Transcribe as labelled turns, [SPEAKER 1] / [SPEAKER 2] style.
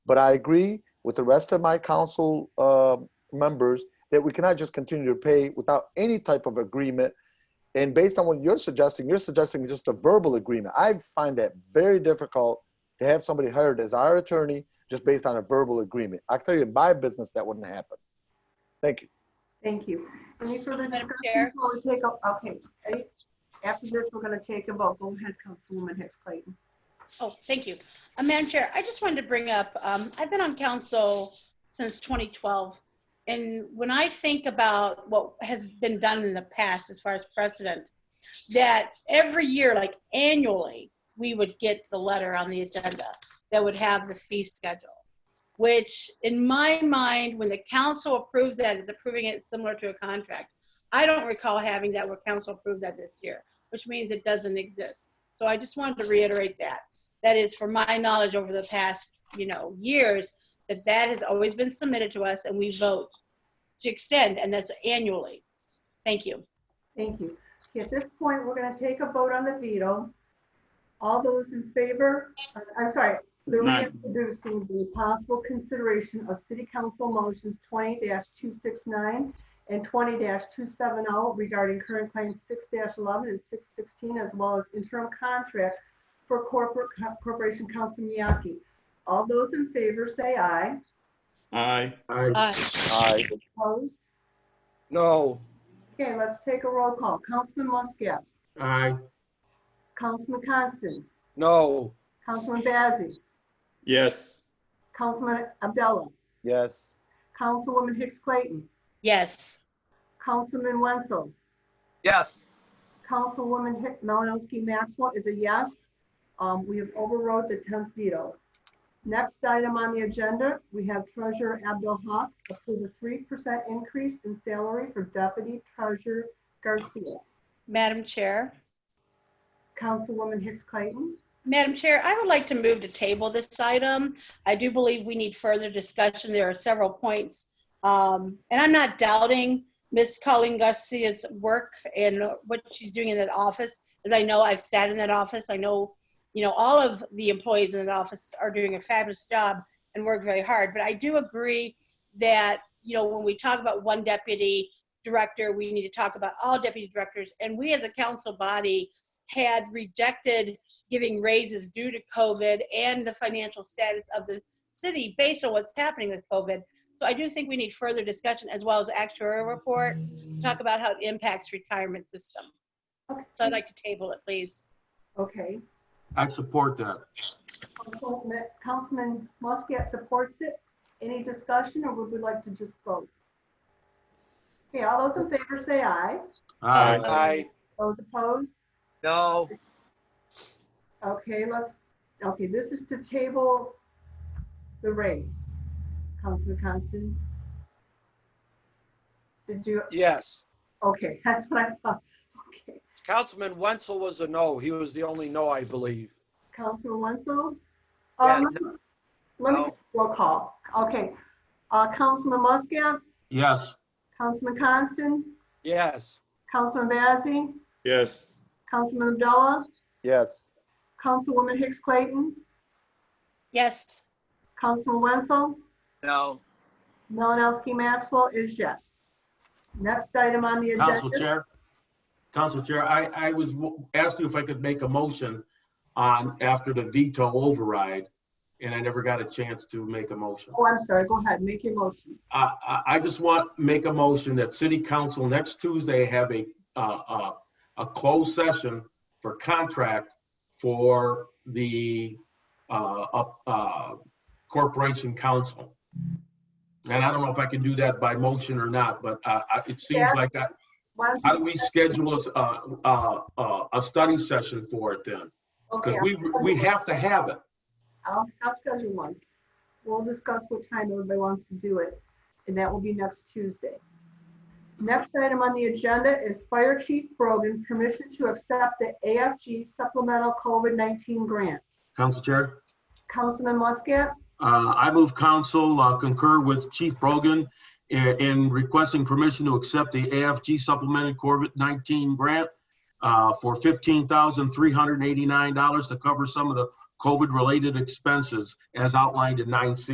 [SPEAKER 1] But I agree with the rest of my council uh, members that we cannot just continue to pay without any type of agreement. And based on what you're suggesting, you're suggesting just a verbal agreement. I find that very difficult to have somebody hired as our attorney just based on a verbal agreement. I tell you, in my business, that wouldn't happen. Thank you.
[SPEAKER 2] Thank you. Any further
[SPEAKER 3] Madam
[SPEAKER 2] discussion?
[SPEAKER 3] Chair.
[SPEAKER 2] before we take a- Okay, any- after this, we're going to take a vote. Go ahead, Councilwoman Hicks Clayton.
[SPEAKER 3] Oh, thank you. Uh, Madam Chair, I just wanted to bring up, um, I've been on council since 2012. And when I think about what has been done in the past as far as precedent, that every year, like annually, we would get the letter on the agenda that would have the fee schedule. Which in my mind, when the council approves that, it's approving it similar to a contract. I don't recall having that where council approved that this year, which means it doesn't exist. So I just wanted to reiterate that that is for my knowledge over the past, you know, years, that that has always been submitted to us and we vote to extend, and that's annually. Thank you.
[SPEAKER 2] Thank you. Okay, At this point, we're going to take a vote on the veto. All those in favor, uh, I'm sorry, they're
[SPEAKER 4] Aye.
[SPEAKER 2] reintroducing the possible consideration of city council motions twenty two six nine and twenty two seven oh regarding current claims six eleven and six sixteen, as well as interim contract for corporate co- corporation council Miyake. All those in favor say aye.
[SPEAKER 4] Aye.
[SPEAKER 3] Aye.
[SPEAKER 1] Aye.
[SPEAKER 2] Opposed?
[SPEAKER 5] No.
[SPEAKER 2] Okay, let's take a roll call. Councilman Muscat,
[SPEAKER 5] Aye.
[SPEAKER 2] Councilman Constant,
[SPEAKER 5] No.
[SPEAKER 2] Councilman Bazey,
[SPEAKER 4] Yes.
[SPEAKER 2] Councilman Abdullah,
[SPEAKER 1] Yes.
[SPEAKER 2] Councilwoman Hicks Clayton,
[SPEAKER 3] Yes.
[SPEAKER 2] Councilman Wenzel,
[SPEAKER 5] Yes.
[SPEAKER 2] Councilwoman Hick- Malinowski Maxwell is a yes. Um, we have overrode the tenth veto. Next item on the agenda, we have Treasurer Abdul Haq approve a three percent increase in salary for Deputy Treasurer Garcia.
[SPEAKER 3] Madam Chair.
[SPEAKER 2] Councilwoman Hicks Clayton,
[SPEAKER 3] Madam Chair, I would like to move to table this item. I do believe we need further discussion. There are several points. Um, And I'm not doubting Ms. Colleen Garcia's work and what she's doing in that office. As I know, I've sat in that office. I know, you know, all of the employees in that office are doing a fabulous job and work very hard. But I do agree that, you know, when we talk about one deputy director, we need to talk about all deputy directors. And we as a council body had rejected giving raises due to COVID and the financial status of the city based on what's happening with COVID. So I do think we need further discussion as well as actuarial report, to talk about how it impacts retirement system. So I'd like to table it, please.
[SPEAKER 2] okay.
[SPEAKER 6] I support that.
[SPEAKER 2] Councilman- Councilman Muscat supports it. Any discussion, or would we like to just vote? Okay, all those in favor say aye.
[SPEAKER 6] Aye.
[SPEAKER 3] uh,
[SPEAKER 5] Aye.
[SPEAKER 2] Those opposed?
[SPEAKER 5] No.
[SPEAKER 2] Okay, let's, okay, this is to table the raise. Councilman Constant? Did you,
[SPEAKER 5] Yes.
[SPEAKER 2] okay, that's what I thought. Okay,
[SPEAKER 5] Councilman Wenzel was a no. He was the only no, I believe.
[SPEAKER 2] Councilman Wenzel?
[SPEAKER 7] Yeah,
[SPEAKER 2] Um, Let me,
[SPEAKER 7] no.
[SPEAKER 2] roll call. Okay. Uh, Councilman Muscat,
[SPEAKER 6] Yes.
[SPEAKER 2] Councilman Constant,
[SPEAKER 5] Yes.
[SPEAKER 2] Councilman Bazey?
[SPEAKER 4] Yes.
[SPEAKER 2] Councilman Abdullah,
[SPEAKER 1] Yes.
[SPEAKER 2] Councilwoman Hicks Clayton,
[SPEAKER 3] Yes,
[SPEAKER 2] Councilman Wenzel,
[SPEAKER 7] No,
[SPEAKER 2] Malinowski Maxwell is yes. Next item on the
[SPEAKER 6] Council
[SPEAKER 2] agenda.
[SPEAKER 6] Chair. Council Chair, I, I was w- asked you if I could make a motion on after the veto override, and I never got a chance to make a motion.
[SPEAKER 2] Oh, I'm sorry, go ahead, make your motion.
[SPEAKER 6] I, I, I just want, to make a motion that city council next Tuesday have a, uh, uh, a closed session for contract for the, uh, up, uh, corporation council. And I don't know if I can do that by motion or not, but, uh, I- it seems
[SPEAKER 2] Yeah.
[SPEAKER 6] like, I-
[SPEAKER 2] Why don't
[SPEAKER 6] how do we schedule a, uh, uh, a study session for it then?
[SPEAKER 2] you-
[SPEAKER 6] Because
[SPEAKER 2] okay,
[SPEAKER 6] we, we have to have it.
[SPEAKER 2] I'll, I'll schedule one. We'll discuss what time everybody wants to do it, and that will be next Tuesday. Next item on the agenda is Fire Chief Brogan, permission to accept the AFG supplemental COVID-19 grant.
[SPEAKER 6] Council Chair?
[SPEAKER 2] Councilman Muscat,
[SPEAKER 6] Uh, I move council uh, concur with Chief Brogan in- in requesting permission to accept the AFG supplemented COVID-19 grant uh, for $15,389 to cover some of the COVID-related expenses as outlined in 9C.